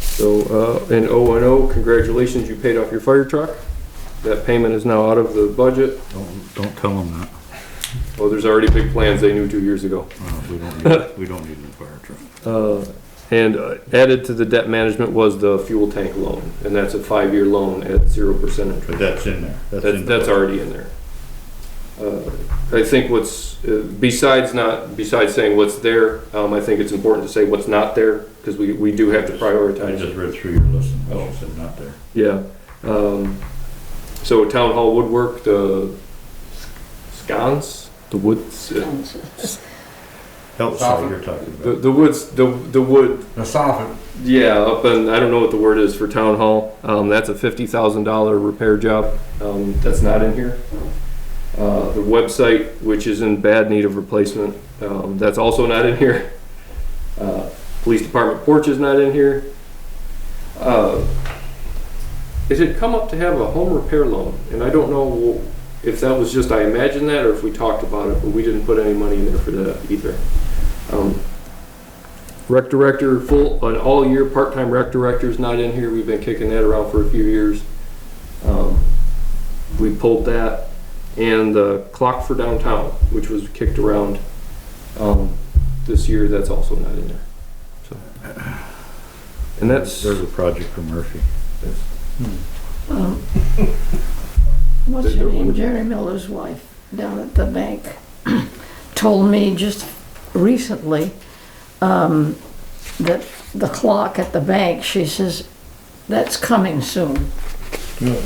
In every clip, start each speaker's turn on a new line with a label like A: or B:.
A: So, uh, and O and O, congratulations, you paid off your fire truck. That payment is now out of the budget.
B: Don't, don't tell them that.
A: Well, there's already big plans they knew two years ago.
B: Uh, We don't need, we don't need a new fire truck.
A: Uh, And uh, added to the debt management was the fuel tank loan, and that's a five-year loan at zero percent interest.
B: But that's in there.
A: That's,
B: in there.
A: that's already in there. Uh, I think what's, uh, besides not, besides saying what's there, um, I think it's important to say what's not there, because we, we do have to
B: I
A: prioritize.
B: just read through your list and what you said not there.
A: Yeah. Um, so town hall woodwork, the sconce, the woods, uh,
B: Help,
C: Stop it.
B: you're talking
A: the,
B: about.
A: the woods, the, the wood,
C: The soffit,
A: yeah, up in, I don't know what the word is for town hall. Um, that's a fifty thousand dollar repair job. Um, that's not in here. Uh, the website, which is in bad need of replacement, um, that's also not in here. Uh, police department porch is not in here. Uh, it had come up to have a home repair loan, and I don't know if that was just I imagined that or if we talked about it, but we didn't put any money in there for that either. Um, Rec director, full, an all-year part-time rec director's not in here, we've been kicking that around for a few years. Um, We pulled that, and the clock for downtown, which was kicked around, um, this year, that's also not in there, so. And that's,
B: There's a project for Murphy.
D: Um, What's her name, Jerry Miller's wife down at the bank told me just recently um, that the clock at the bank, she says, that's coming soon.
E: Good.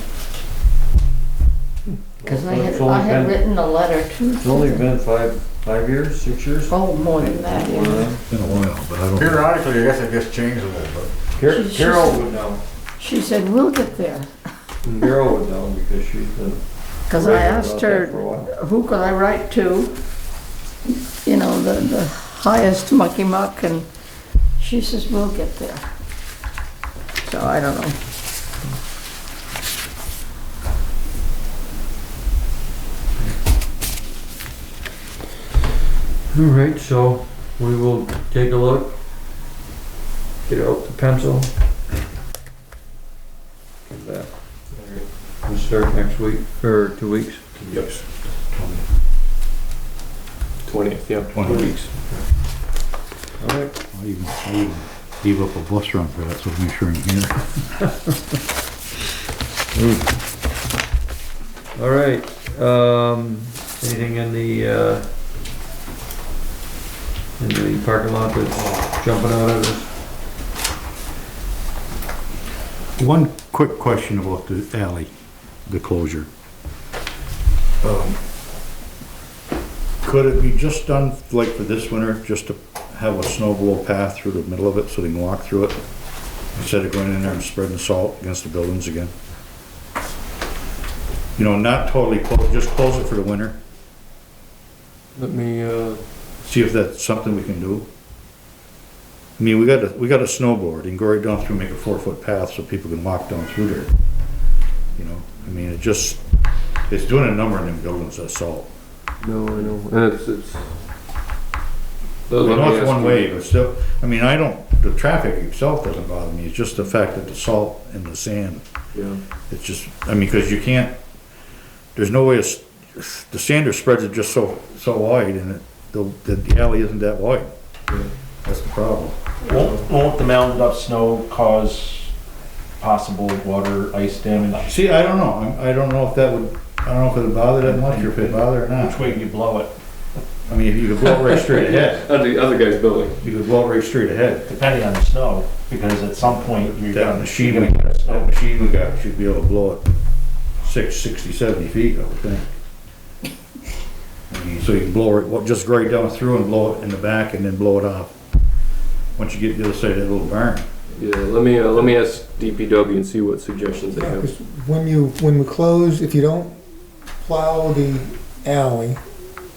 D: Because I
E: Well,
D: had,
E: it's only
D: I had
E: been-
D: written a letter to.
E: It's only been five, five years, six years?
D: Oh, more than that, yeah.
E: Uh,
B: It's been a while, but I don't.
C: periodically, I guess it gets changed a little bit.
E: Car-
D: She's
E: Carol
D: just-
E: would know,
D: She said, we'll get there.
E: Carol would know because she's been.
D: Because I
E: raving
D: asked
E: about that
D: her,
E: For a while.
D: who could I write to? You know, the, the highest mucky muck, and she says, we'll get there. So I don't know.
E: All right, so we will take a look. Get out the pencil. Get that. We start next week, or two weeks.
B: Yes.
A: twentieth, yeah.
B: Twenty weeks.
E: All right.
B: I'll even, I'll even leave up a bus run for that, so make sure I'm here.
E: All right, um, anything in the, uh, in the parking lot that's jumping out at us?
B: One quick question about the alley, the closure. Um, Could it be just done, like for this winter, just to have a snow blow path through the middle of it so they can walk through it? Instead of going in there and spreading salt against the buildings again? You know, not totally close, just close it for the winter,
A: Let me, uh,
B: see if that's something we can do. I mean, we got a, we got a snowboard, you can go right down through, make a four-foot path so people can walk down through there. You know, I mean, it just, it's doing a number in them buildings, that's all.
A: no, I know, and it's, it's.
B: I
A: Let me
B: know it's
A: ask
B: one
A: you.
B: way, but still, I mean, I don't, the traffic itself doesn't bother me, it's just the fact that the salt and the sand,
A: Yeah.
B: it's just, I mean, cause you can't, there's no way, it's- the sander spreads it just so, so wide and it, the, the alley isn't that wide. That's the problem.
F: Won't, won't the mounted up snow cause possible water, ice damage?
B: See, I don't know, I'm- I don't know if that would, I don't know if it'd bother that much, or if it'd bother or
F: Which
B: not.
F: way do you blow it?
B: I mean, if you could blow it right straight ahead,
A: That's the other guy's building.
B: you could blow it right straight ahead.
F: Depending on the snow, because at some point you're
B: That
F: gonna, you're
B: machine, we-
F: gonna get a
B: that
F: snow.
B: machine we got, should be able to blow it six, sixty, seventy feet, I would think. I mean, So you can blow it, well, just right down through and blow it in the back and then blow it off. Once you get to the other side of that little barn.
A: Yeah, let me, uh, let me ask DPW and see what suggestions they
G: Yeah,
A: have.
G: 'cause When you, when we close, if you don't plow the alley,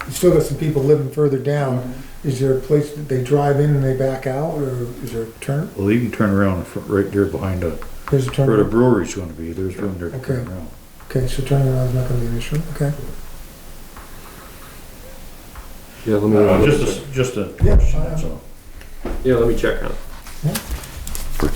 G: you still got some people living further down. Is there a place that they drive in and they back out, or is there a turn,
B: Well, you can turn around in front, right there behind the,
G: there's a
B: where the
G: turn?
B: brewery's gonna be, there's room there to turn
G: Okay.
B: around.
G: Okay, so turning around is not gonna be an issue, okay?
A: Yeah, let
B: Uh, Just
A: me,
B: a, just a
G: Yeah,
B: Uh, question,
G: I-
B: that's all.
A: yeah, let me check on it.